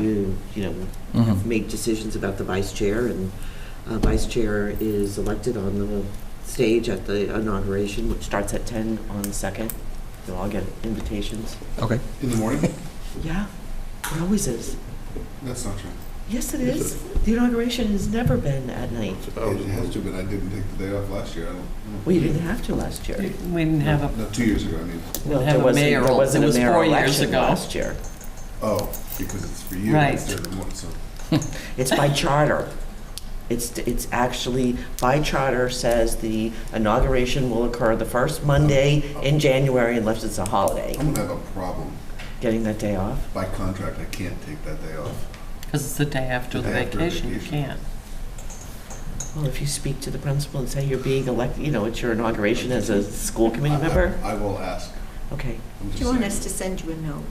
you, you know, Mhm. make decisions about the vice chair, and uh, vice chair is elected on the stage at the inauguration, which starts at 10 on the 2nd. You'll all get invitations. Okay. In the morning? Yeah, it always is. That's not true. Yes, it is. The inauguration has never been at night. Oh. It has to, but I didn't take the day off last year. I don't. Well, you didn't have to last year. We didn't have a, No, two years ago, I mean. we There didn't have a wasn't- mayoral. There wasn't It a was mayoral four years election ago. last year. Oh, because it's for you. Right. instead of one, so. It's by charter. It's, it's actually, by charter says the inauguration will occur the first Monday in January unless it's a holiday. I'm gonna have a problem. Getting that day off? By contract, I can't take that day off. Because it's the day after The the day after vacation, you vacation. can't. Well, if you speak to the principal and say you're being elected, you know, it's your inauguration as a school committee I- I- member? I will ask. Okay. I'm Do just you want saying. us to send you a note?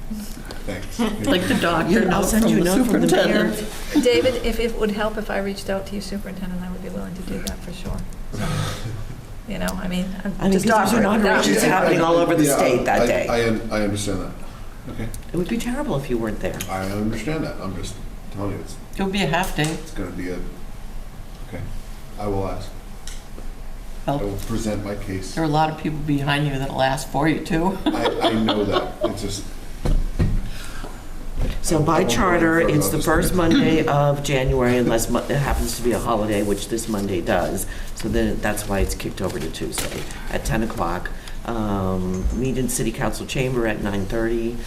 Thanks. Like the doctor I'll note send you from a the note from the mayor. superintendent. David, if it would help if I reached out to you, superintendent, I would be willing to do that for sure. So, You know, I mean, I mean, I'm just because there's offering. inaugurations that. It's happening all over the Yeah, state that I- day. I, un- I understand that. Okay. It would be terrible if you weren't there. I understand that. I'm just telling you, it's, It'll be a half day. it's gonna be a, okay. I will ask. I Well, will present my case. There are a lot of people behind you that'll ask for you too. I, I know that. It's just, So by I'm all charter, for it, it's the obviously. first Monday of January unless Mon- it happens to be a holiday, which this Monday does. So then, that's why it's kicked over to Tuesday at 10 o'clock. Um, Meet in City Council Chamber at 9:30.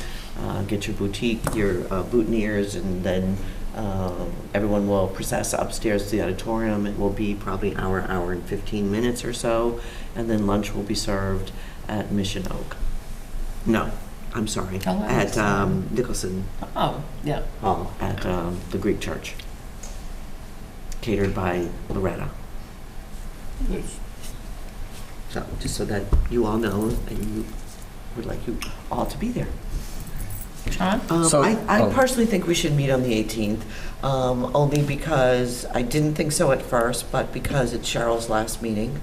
Uh, Get your boutique, your uh, boutonnieres, and then um, everyone will process upstairs to the auditorium. It will be probably hour, hour and 15 minutes or so. And then lunch will be served at Mission Oak. No, I'm sorry, Oh, I at um, Nicholson Oh, yeah. Hall at um, the Greek church, catered by Loretta. So, just so that you all know, and you would like you all to be there. John? Um, So- I, I oh. personally think we should meet on the 18th, um, only because I didn't think so at first, but because it's Cheryl's last meeting,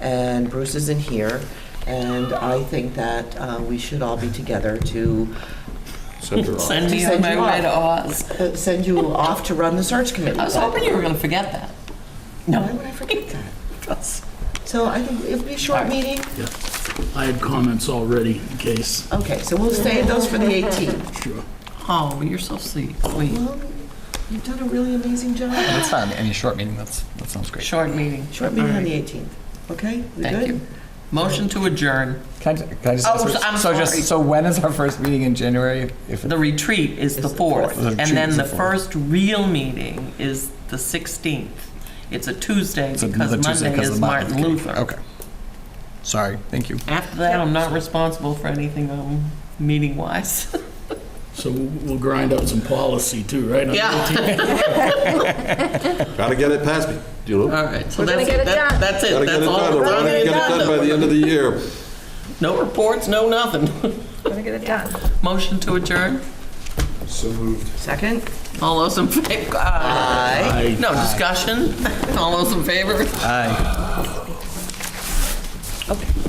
and Bruce isn't here, and I think that uh, we should all be together to Send me on Send my you way to Oz. uh, send you off to run the search committee. I was hoping you were going to forget that. Why No. would I forget that? So I think it'll be a short meeting. I had comments already in case. Okay, so we'll stay at those for the 18th. Sure. Oh, you're so sweet. Sweet. Well, you've done a really amazing job. That's fine. Any short meeting, that's, that sounds great. Short meeting. Short meeting on the 18th. Okay, we Thank good? you. Motion to adjourn. Can I, ju- can I just? Oh, ask- so- I'm So sorry. just, so when is our first meeting in January? If The retreat is the It's the fourth. 4th, The and retreat then is the the fourth. first real meeting is the 16th. It's a Tuesday it's because another Tuesday Monday 'cause of is Martin Luther. Okay. Sorry, thank you. After that, I'm not responsible for anything um, meeting-wise. So we'll we'll grind out some policy too, right? on the Yeah. 18th? Gotta get it past me, you know? All right, so We're gonna that's get it, it That- done. that's it, Gotta get that's it done, all. I We're wanna gonna get it done by the end of the year. No reports, no nothing. Gotta get it done. Motion to adjourn, so moved. Second? all those in favor? Aye. No discussion, all those in favor? Aye. Okay.